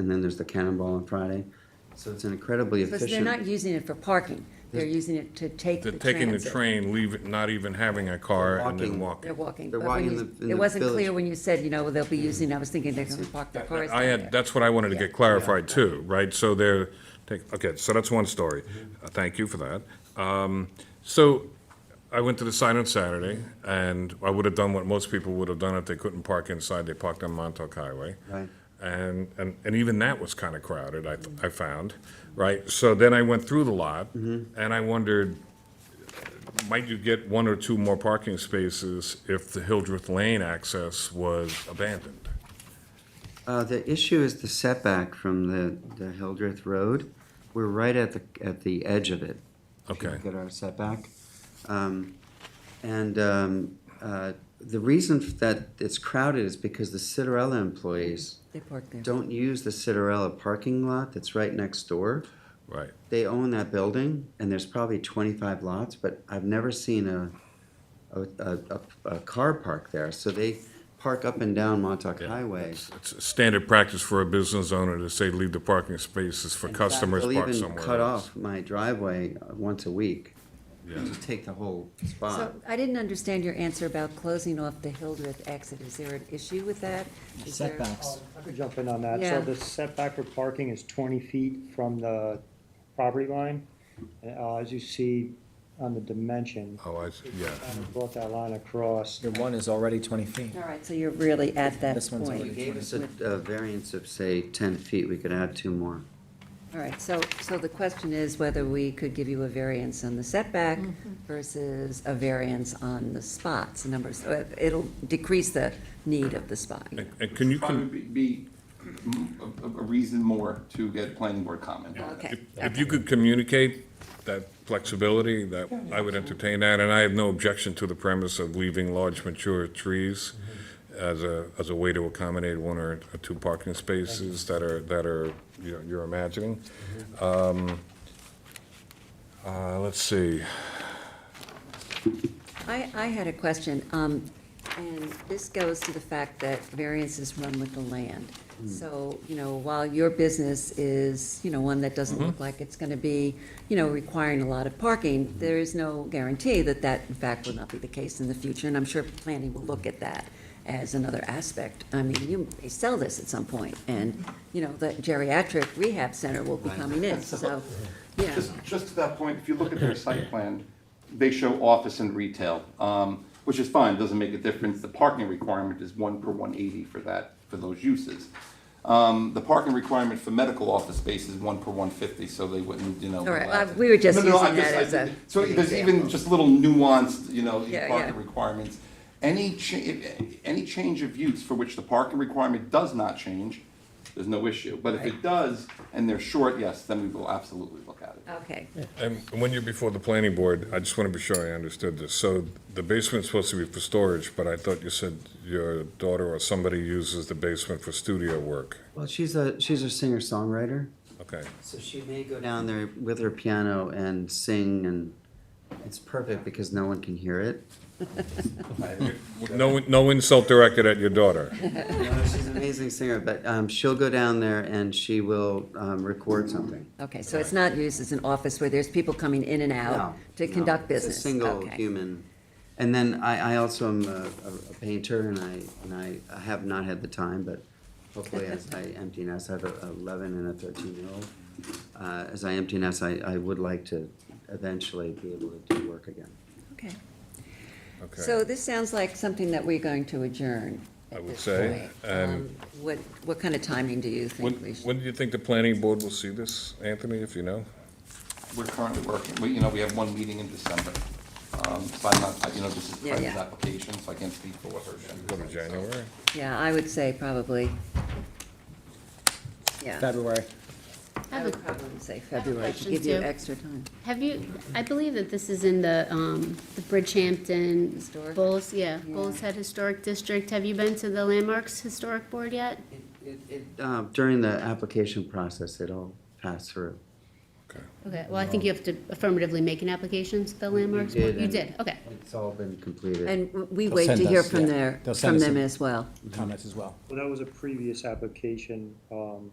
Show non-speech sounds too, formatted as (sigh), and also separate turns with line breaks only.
and then there's the cannonball on Friday. So it's an incredibly
Because they're not
efficient,
using it for parking, they're using it to take the
They're taking the
transit.
train, leave, not even having a car and then
They're
walking.
walking.
They're
But when
walking
you-
in the- in
It
the
wasn't
village.
clear when you said, you know, they'll be using, I was thinking they're gonna park their cars
I
down
had,
there.
that's what I wanted to
Yeah.
get clarified too, right? So they're, take- okay, so that's one story. Uh, Thank you for that. Um, So I went to the sign on Saturday and I would have done what most people would have done if they couldn't park inside. They parked on Montauk Highway.
Right.
And, and, and even that was kind of crowded, I, I found, right? So then I went through the lot
Mm-hmm.
and I wondered, might you get one or two more parking spaces if the Hildreth Lane access was abandoned?
uh, the issue is the setback from the, the Hildreth Road. We're right at the, at the edge of it. if you
Okay.
Look at our setback. Um, and, um, uh, the reason that it's crowded is because the Citarella employees
They park there.
don't use the Citarella parking lot that's right next door.
Right.
they own that building, and there's probably twenty-five lots, but I've never seen a, a, a, a- a car park there, so they park up and down Montauk Highway.
It's standard practice for a business owner to say, leave the parking spaces for customers
They'll
parked
even
somewhere
cut
else.
off my driveway uh, once a week,
Yeah.
just take the whole
So
spot.
I didn't understand your answer about closing off the Hildreth exit. Is there an issue with that? Is there-
setbacks.
I could jump in on that.
Yeah.
So the setback for parking is twenty feet from the property line. And, uh, as you see on the dimension,
Oh, I, see. yeah,
I brought that line across.
Your one is already twenty feet.
All right, so you're really at that
This one's
If You
already-
point.
gave us a, a variance of, say, ten feet, we could add two more.
All right, so, so the question is whether we could give you a variance on the setback
Mm-hmm.
versus a variance on the spots, the numbers. So it- It'll decrease the need of the spot.
and and can you,
Probably
con-
be be mm, a, a reason more to get planning board comment on it.
Okay.
if if you could communicate that flexibility, that, I would entertain that, and I have no objection to the premise of leaving large mature trees as a, as a way to accommodate one or two parking spaces that are, that are, you know, you're imagining.
Mm-hmm.
Um, uh, let's see,
I, I had a question, um, and this goes to the fact that variances run with the land. So, you know, while your business is, you know, one that doesn't look like it's gonna be, you know, requiring a lot of parking, there is no guarantee that that, in fact, will not be the case in the future, and I'm sure planning will look at that as another aspect. I mean, you may sell this at some point, and, you know, the geriatric rehab center will be coming in, so, yeah.
Just, just to that point, if you look at their site plan, they show office and retail, um, which is fine, doesn't make a difference. The parking requirement is one per one eighty for that, for those uses. Um, the parking requirement for medical office space is one per one fifty, so they wouldn't, you know.
All right,
allow
uh,
it.
we were just
No, no, I
using that
just- I-
as a-
So
an
there's
example.
even just little nuanced, you know,
Yeah,
parking
yeah.
requirements. Any cha, any change of use for which the parking requirement does not change, there's no issue. But if it does, and they're short, yes, then we will absolutely look at it.
Okay,
And when you're before the planning board, I just want to be sure I understood this. So the basement's supposed to be for storage, but I thought you said your daughter or somebody uses the basement for studio work.
Well, she's a, she's a singer-songwriter,
Okay,
so she may go down there with her piano and sing, and it's perfect because no one can hear it.
no, no insult directed at your daughter.
No, she's an amazing singer, but um, she'll go down there and she will um, record something.
Okay, so it's not used as an office where there's people coming in and out
No,
to
no,
conduct
it's
business?
A single
Okay.
human. And then I, I also am a, a- a painter and I, and I have not had the time, but hopefully as
(laughs)
I empty nest, I have a eleven and a thirteen year old. Uh, as I empty nest, I, I would like to eventually be able to do work again.
Okay.
Okay.
So this sounds like something that we're going to adjourn
I
at
would
this
say,
point.
um,
Um, What, what kind of timing do you
When,
think we should?
when do you think the planning board will see this, Anthony, if you know?
We're currently working, we, you know, we have one meeting in December. Um, so I'm not, you know, this is
Yeah,
Brenda's
yeah.
application, so I can't speak for what her.
Go to January?
Yeah, I would say probably, yeah.
February.
I
have
would
a-
probably say
have a
February to
question,
give you
too.
extra time.
Have you, I believe that this is in the, um, the Bridgehampton.
Historic?
Bulls, yeah,
Yeah.
Bulls Head Historic District. Have you been to the Landmarks Historic Board yet?
It- it- uh, During the application process, it'll pass through.
Okay.
Okay, well, I think you have to affirmatively make an application to the Landmarks Board. You
and
did, okay.
It's all been completed.
And w- we
They'll
wait
send
to hear
us,
from
yeah.
their,
They'll send
from
us
them
a-
as well.
Comments as well.
Well, that was a previous application, um,